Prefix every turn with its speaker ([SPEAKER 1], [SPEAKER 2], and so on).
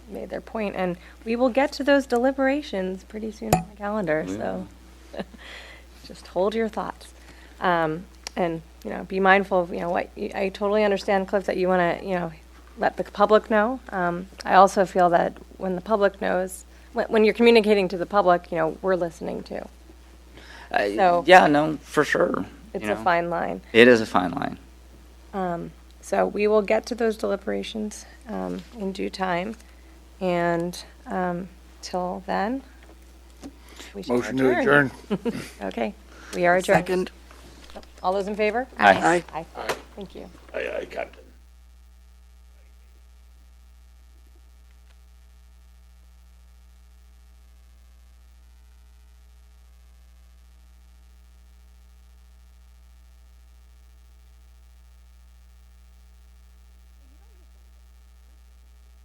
[SPEAKER 1] made their point, and we will get to those deliberations pretty soon on the calendar, so just hold your thoughts. Um, And, you know, be mindful of, you know, what, you- I totally understand, Cliff, that you want to, you know, let the public know. Um, I also feel that when the public knows, when- when you're communicating to the public, you know, we're listening too.
[SPEAKER 2] I-
[SPEAKER 1] So-
[SPEAKER 2] yeah, no, for sure.
[SPEAKER 1] It's
[SPEAKER 2] you
[SPEAKER 1] a
[SPEAKER 2] know.
[SPEAKER 1] fine line.
[SPEAKER 2] It is a fine line.
[SPEAKER 1] Um, So we will get to those deliberations um, in due time. And um, till then, we shall
[SPEAKER 3] Motion to adjourn.
[SPEAKER 1] Okay, we are adjourned.
[SPEAKER 4] Second.
[SPEAKER 1] All those in favor?
[SPEAKER 2] Aye.
[SPEAKER 1] Aye. Thank you.
[SPEAKER 3] I, I got